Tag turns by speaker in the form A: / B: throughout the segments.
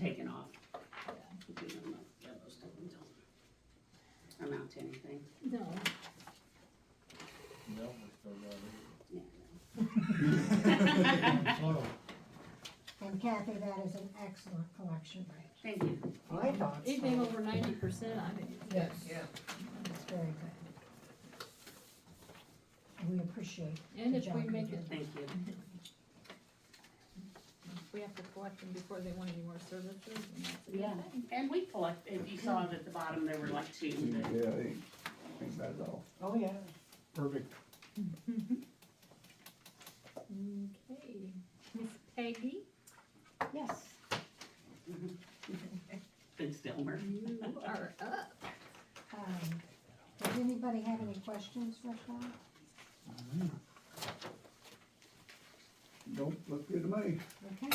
A: taken off. You know, no, yeah, those don't- don't Amount to anything,
B: No,
C: No, we still got
A: yeah.
C: it. So,
D: And Kathy, that is an excellent collection rate.
A: Thank you,
D: I thought so.
B: anything over ninety percent, I mean,
D: Yes. Yeah. It's very good. We appreciate.
B: and
D: the
B: if we
D: job you
B: make
D: do.
B: it,
A: thank you.
B: we have to collect them before they want any more services, and that's a good
A: Yeah.
B: thing.
A: And we collect, if you saw it at the bottom, there were like two that
E: Yeah, they, ain't bad at all.
D: Oh, yeah.
C: perfect.
B: Okay, Miss Peggy,
D: Yes.
A: been Stillmer.
B: you are up.
D: Um, Does anybody have any questions for Sean?
E: Don't look good to me.
D: Okay,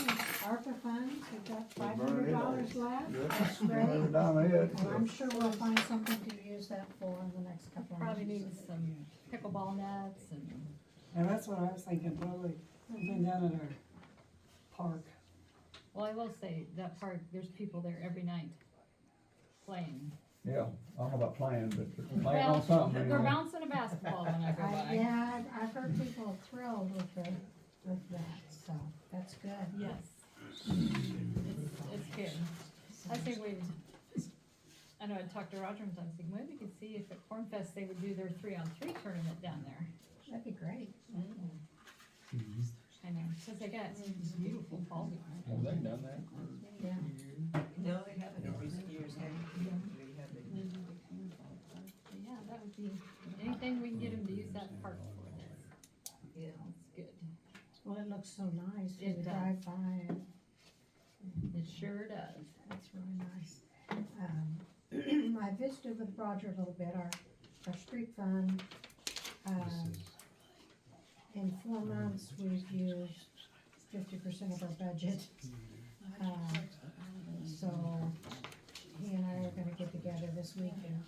D: ARPA funds, we've got five
E: Burn
D: hundred
E: it
D: dollars
E: all.
D: left.
E: Yes,
D: Ready?
E: right down ahead.
D: And I'm sure we'll find something to use that for in the next couple of months.
B: Probably need some pickleball nets and.
F: Yeah, that's what I was thinking, probably, something down at our park.
B: Well, I will say, that park, there's people there every night playing.
E: Yeah, I don't know about playing, but they're playing
B: Well,
E: on something.
B: They're
E: you know.
B: bouncing a basketball when I go
D: I,
B: by.
D: yeah, I've- I've heard people thrilled with the, with that, so that's good.
B: Yes. It's, it's good. I think we, I know I talked to Roger and I was thinking, maybe we could see if at Corn Fest they would do their three-on-three tournament down there.
D: That'd be great.
B: I know, cause they got some beautiful balls.
C: Have they done that?
D: Yeah.
G: No, they haven't in recent years, have they? They haven't.
B: Yeah, that would be, anything we can get them to use that park for, that's, yeah, that's good.
D: Well, it looks so nice.
B: It
D: You
B: does.
D: drive by and
B: It sure does.
D: That's really nice. Um, I visited with Roger a little bit, our, our street fund. um, In four months, we've used fifty percent of our budget. Uh, So he and I are gonna get together this week and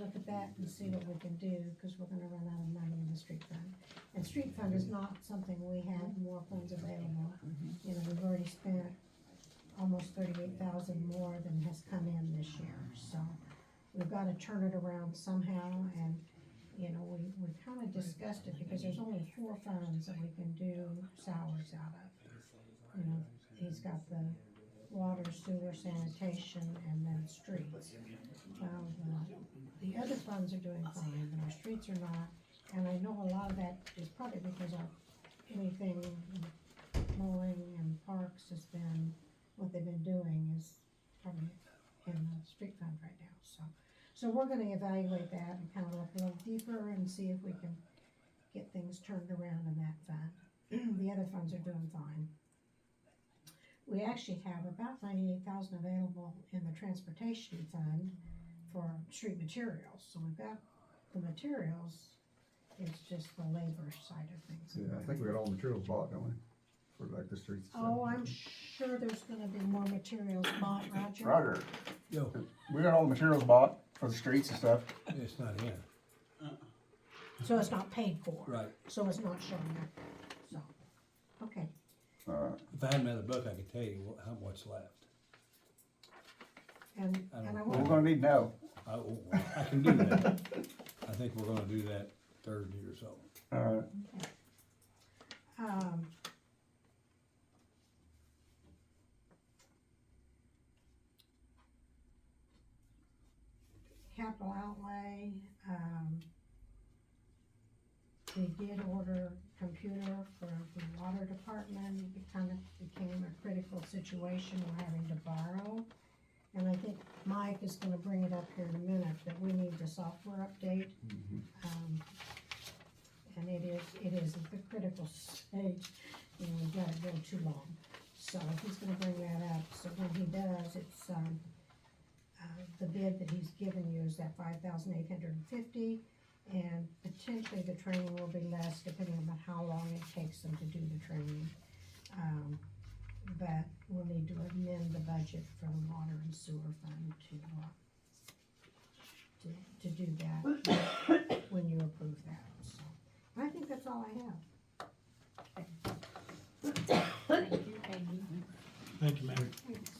D: look at that and see what we can do, because we're gonna run out of money in the street fund. And street fund is not something we have more funds available. You know, we've already spent almost thirty-eight thousand more than has come in this year, so we've gotta turn it around somehow, and, you know, we, we kinda discussed it, because there's only four funds that we can do salaries out of. You know, he's got the water, sewer, sanitation, and then streets. Well, the, the other funds are doing fine, but our streets are not, and I know a lot of that is probably because of anything mowing and parks has been what they've been doing is probably in the street fund right now, so. So we're gonna evaluate that and kind of look a little deeper and see if we can get things turned around in that fund. The other funds are doing fine. We actually have about ninety-eight thousand available in the transportation fund for street materials, so we've got the materials. It's just the labor side of things.
E: Yeah, I think we got all the materials bought, don't we? For like the streets. and
D: Oh,
E: stuff.
D: I'm sure there's gonna be more materials bought, Roger.
E: Roger,
H: No,
E: we got all the materials bought for the streets and stuff.
H: it's not here.
D: So it's not paid for.
H: Right.
D: So it's not showing up, so, okay,
E: Uh,
H: If I had another book, I could tell you wh- how much left.
D: and,
H: I don't-
D: and I
E: we're
D: want,
E: gonna need to know.
H: I, oh, well, I can do that. I think we're gonna do that Thursday or so.
E: Uh,
D: um. Capital outlay, um. We did order computer for the water department, it kind of became a critical situation, we're having to borrow. And I think Mike is gonna bring it up here in a minute, that we need the software update. Um, And it is, it is at the critical stage, and we've got it go too long. So he's gonna bring that up, so when he does, it's, um, uh, the bid that he's given you is that five thousand eight hundred and fifty, and potentially the training will be less depending on how long it takes them to do the training. Um, but we'll need to amend the budget for the water and sewer fund to, uh, to, uh, to do that when you approve that, so. I think that's all I have.
B: Thank you, Peggy.
C: Thank you, Mayor.